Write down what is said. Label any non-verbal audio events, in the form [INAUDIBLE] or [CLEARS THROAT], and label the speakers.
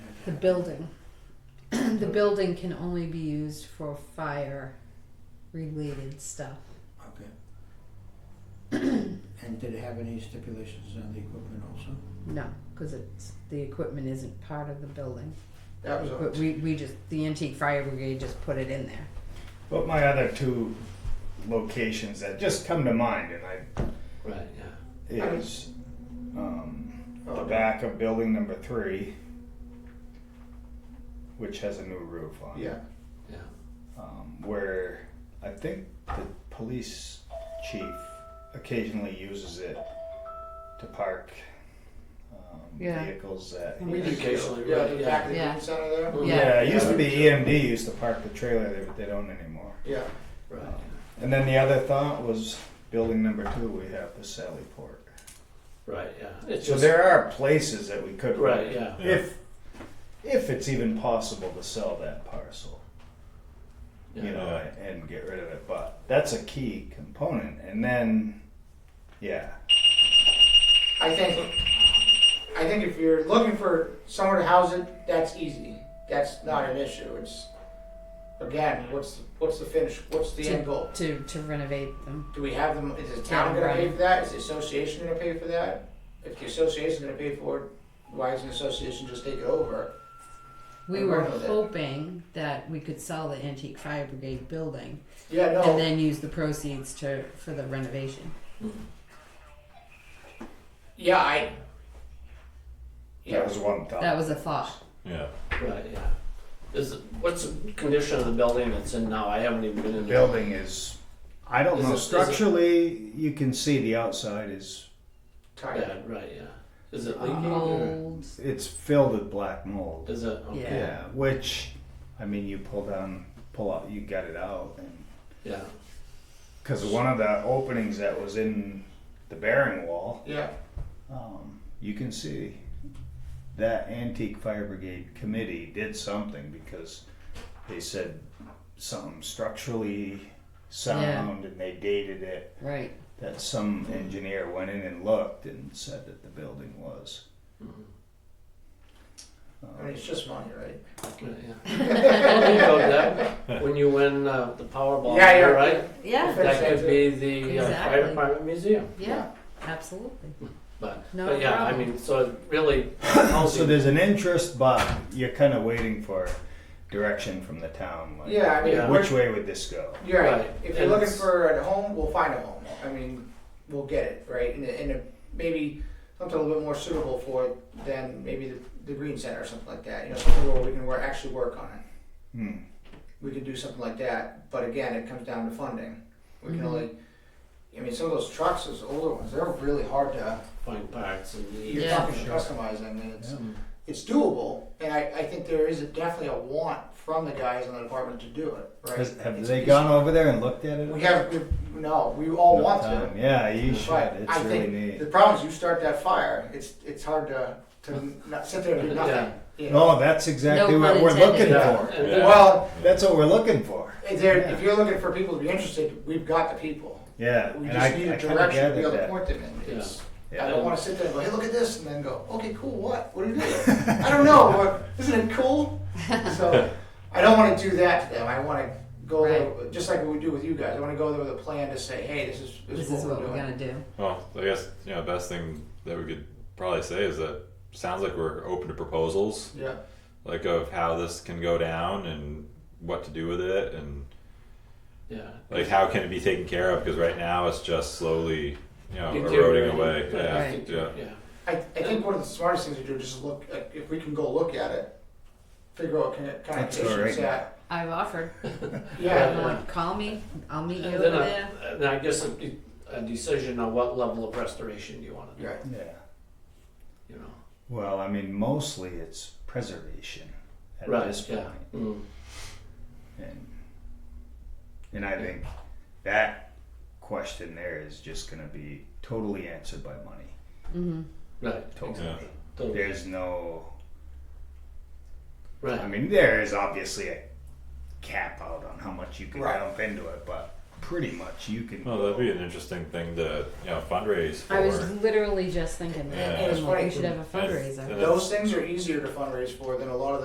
Speaker 1: the building. [CLEARS THROAT] the building can only be used for fire related stuff.
Speaker 2: Okay. [CLEARS THROAT] And did it have any stipulations on the equipment also?
Speaker 1: No, because it's the equipment isn't part of the building.
Speaker 2: That was
Speaker 1: But
Speaker 2: all.
Speaker 1: we, we just the antique fire brigade just put it in there.
Speaker 3: But my other two locations that just come to mind, and I
Speaker 4: Right, yeah.
Speaker 3: is um, the
Speaker 2: Oh,
Speaker 3: back of building number three, which has a new roof on. it.
Speaker 2: Yeah,
Speaker 4: Yeah.
Speaker 3: um, where I think the police chief occasionally uses it to park um,
Speaker 1: Yeah.
Speaker 3: vehicles that.
Speaker 1: We
Speaker 4: do occasionally,
Speaker 2: Yeah,
Speaker 4: right,
Speaker 2: the
Speaker 4: yeah.
Speaker 2: back of the
Speaker 1: Yeah.
Speaker 2: community center there?
Speaker 4: Mm.
Speaker 3: Yeah, it used to be EMD used to park the trailer there, but they don't anymore.
Speaker 2: Yeah,
Speaker 4: Right.
Speaker 3: Um, And then the other thought was building number two, we have the Sally Port.
Speaker 4: yeah. Right, yeah. It's
Speaker 3: So
Speaker 4: just
Speaker 3: there are places that we could.
Speaker 4: right, yeah.
Speaker 3: If, if it's even possible to sell that parcel.
Speaker 4: yeah.
Speaker 3: you know, and get rid of it. But that's a key component. And then, yeah,
Speaker 2: I think, I think if you're looking for somewhere to house it, that's easy. That's not an issue, it's, again, what's, what's the finish, what's the end goal?
Speaker 1: To to renovate them.
Speaker 2: Do we have them, is the town gonna pay for that, is the association gonna pay for that? If the association's gonna pay for it, why isn't the association just take it over?
Speaker 1: We
Speaker 2: I'm
Speaker 1: were
Speaker 2: going with it.
Speaker 1: hoping that we could sell the antique fire brigade building
Speaker 2: Yeah,
Speaker 1: and
Speaker 2: no,
Speaker 1: then use the proceeds to for the renovation.
Speaker 2: yeah, I,
Speaker 3: that
Speaker 2: yeah,
Speaker 3: was one thought.
Speaker 1: That was a thought.
Speaker 5: Yeah.
Speaker 4: Right, yeah. Is it, what's the condition of the building it's in now? I haven't even been in
Speaker 3: the
Speaker 4: there.
Speaker 3: building is, I don't
Speaker 4: Is
Speaker 3: know.
Speaker 4: it- is it-
Speaker 3: Structurally, you can see the outside is
Speaker 2: tired.
Speaker 4: Yeah, right, yeah. Is it leaking? or-
Speaker 1: Mold.
Speaker 3: it's filled with black mold.
Speaker 4: Is it? Okay.
Speaker 1: Yeah.
Speaker 3: Yeah, which, I mean, you pull down, pull out, you got it out, and
Speaker 4: Yeah.
Speaker 3: because one of the openings that was in the bearing wall
Speaker 2: Yeah,
Speaker 3: um, you can see that antique fire brigade committee did something because they said something structurally sound and they dated it
Speaker 1: Right.
Speaker 3: that some engineer went in and looked and said that the building was Um,
Speaker 4: Mhm.
Speaker 2: I mean, it's just money, right?
Speaker 4: Right, yeah. Well, you know that when you win uh, the Powerball,
Speaker 2: Yeah, yeah.
Speaker 4: right?
Speaker 1: Yeah.
Speaker 4: That could be the uh,
Speaker 1: Exactly.
Speaker 4: fire department museum.
Speaker 1: Yeah. Absolutely.
Speaker 4: But,
Speaker 1: No
Speaker 4: but yeah, I
Speaker 1: problem.
Speaker 4: mean, so really, housing
Speaker 3: so there's an interest but you're kind of waiting for direction from the town like
Speaker 2: Yeah, I mean,
Speaker 4: Yeah.
Speaker 2: we're-
Speaker 3: which way would this go
Speaker 2: You're right.
Speaker 4: Right.
Speaker 2: If you're
Speaker 4: And
Speaker 2: looking
Speaker 4: it's-
Speaker 2: for a home, we'll find a home. I mean, we'll get it, right? And, and a, maybe something a little bit more suitable for it than maybe the, the Green Center or something like that. You know, something where we can work, actually work on it.
Speaker 3: hmm.
Speaker 2: We can do something like that. But again, it comes down to funding. We can only, I mean, some of those trucks, those older ones, they're really hard to,
Speaker 4: find parts and the,
Speaker 2: you're
Speaker 1: Yeah.
Speaker 2: talking customizing and it's,
Speaker 3: Yeah.
Speaker 2: it's doable. And I, I think there is a, definitely a want from the guys in the department to do it, right?
Speaker 3: Has- have
Speaker 2: It's-
Speaker 3: they
Speaker 2: it's-
Speaker 3: gone over there and looked at it
Speaker 2: We have, we- no, we all
Speaker 3: No
Speaker 2: want to.
Speaker 3: time. yeah you should
Speaker 2: Right.
Speaker 3: it's
Speaker 2: I
Speaker 3: really
Speaker 2: think
Speaker 3: neat
Speaker 2: The problem is you start that fire, it's, it's hard to, to not sit there and do nothing.
Speaker 4: Yeah.
Speaker 2: you know.
Speaker 3: No, Oh, that's exactly
Speaker 1: No
Speaker 3: what we're
Speaker 1: pun intended.
Speaker 3: looking
Speaker 4: Yeah.
Speaker 3: for.
Speaker 4: And
Speaker 5: Yeah.
Speaker 4: then-
Speaker 2: Well,
Speaker 3: That's what we're looking for.
Speaker 2: if they're- if you're looking for people to be interested, we've got the people.
Speaker 3: Yeah,
Speaker 2: We
Speaker 3: and I,
Speaker 2: just need
Speaker 3: I
Speaker 2: a
Speaker 3: kind of
Speaker 2: direction to be
Speaker 3: gathered
Speaker 2: able to
Speaker 3: that.
Speaker 2: point them in. It's-
Speaker 3: Yeah.
Speaker 2: I don't wanna sit there and go, hey, look at this, and then go, okay, cool, what? What are you
Speaker 3: [LAUGHS]
Speaker 2: doing? I don't know, but isn't it cool? So, I don't wanna do that to them. I wanna go there, just like we do with you guys. I wanna go there with a plan to say, hey, this is,
Speaker 1: This is what we're
Speaker 2: doing.
Speaker 1: gonna do.
Speaker 5: Well, I guess you know the best thing that we could probably say is that sounds like we're open to proposals,
Speaker 2: Yeah,
Speaker 5: like of how this can go down and what to do with it, and
Speaker 4: yeah.
Speaker 5: like how can it be taken care of because right now it's just slowly you know
Speaker 4: Deteriorating,
Speaker 5: eroding away.
Speaker 4: but
Speaker 5: Yeah,
Speaker 1: Right.
Speaker 5: yeah.
Speaker 4: Yeah.
Speaker 2: I, I think one of the smartest things to do is just look, like, if we can go look at it, figure out what kind of
Speaker 3: That's all
Speaker 2: connotations
Speaker 3: right.
Speaker 2: that.
Speaker 1: I've offered.
Speaker 2: Yeah,
Speaker 1: I'm like, Uh, call me. I'll meet you
Speaker 4: And
Speaker 1: over
Speaker 4: then,
Speaker 1: there.
Speaker 4: a, and I guess a, de- a decision on what level of restoration you want to do.
Speaker 2: yeah.
Speaker 3: Yeah.
Speaker 4: You know.
Speaker 3: Well, I mean, mostly it's preservation at
Speaker 4: right.
Speaker 3: this point,
Speaker 4: yeah. Mm.
Speaker 3: and and I think that question there is just going to be totally answered by money.
Speaker 1: Mm-hmm.
Speaker 4: Right.
Speaker 3: Totally.
Speaker 5: Yeah.
Speaker 4: Totally.
Speaker 3: There's no. I
Speaker 4: Right.
Speaker 3: mean, there is obviously a cap out on how much you can
Speaker 2: Right.
Speaker 3: dump into it, but pretty much you can.
Speaker 5: Well, that'd be an interesting thing to you know fundraise for.
Speaker 1: I was literally just thinking that.
Speaker 5: Yeah.
Speaker 1: I'm
Speaker 2: That's
Speaker 1: like,
Speaker 2: funny.
Speaker 1: we should have a
Speaker 5: And-
Speaker 1: fundraiser.
Speaker 5: and
Speaker 2: Those things are easier to fundraise for than a lot of the